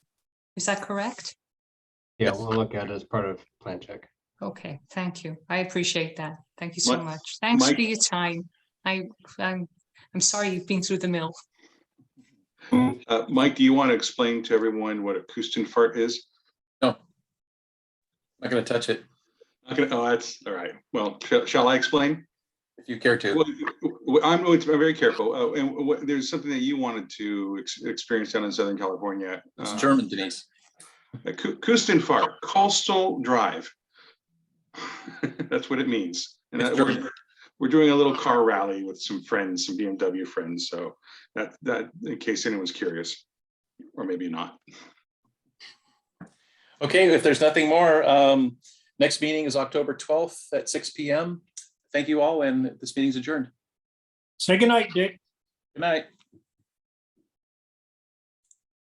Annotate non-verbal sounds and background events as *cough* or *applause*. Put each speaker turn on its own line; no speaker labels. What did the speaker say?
Is that correct?
Yeah,
Yes.
we'll look at it as part of plan check.
Okay, thank you. I appreciate that. Thank you so
Mi-
much. Thanks
Mike-
for your time. I, I'm, I'm sorry you've been through the mill.
Uh, Mike, do you want to explain to everyone what a Kustenfart is?
Not gonna touch it
Not gonna- oh, that's, all right. Well, shall- shall I explain?
if you care to.
Well, w- I'm, going to- I'm very careful. Oh, and what, there's something that you wanted to ex- experience down in Southern California.
It's
uh,
German, Denise.
a Ku- Kustenfahrt, coastal drive. *laughs* That's what it means. And
It's
uh, that- we're,
German.
we're doing a little car rally with some friends, some BMW friends. So that, that, in case anyone's curious, or maybe not.
Okay, if there's nothing more, um, next meeting is October twelfth at six P M. Thank you all, and this meeting's adjourned.
Say goodnight, Dick.
Good night.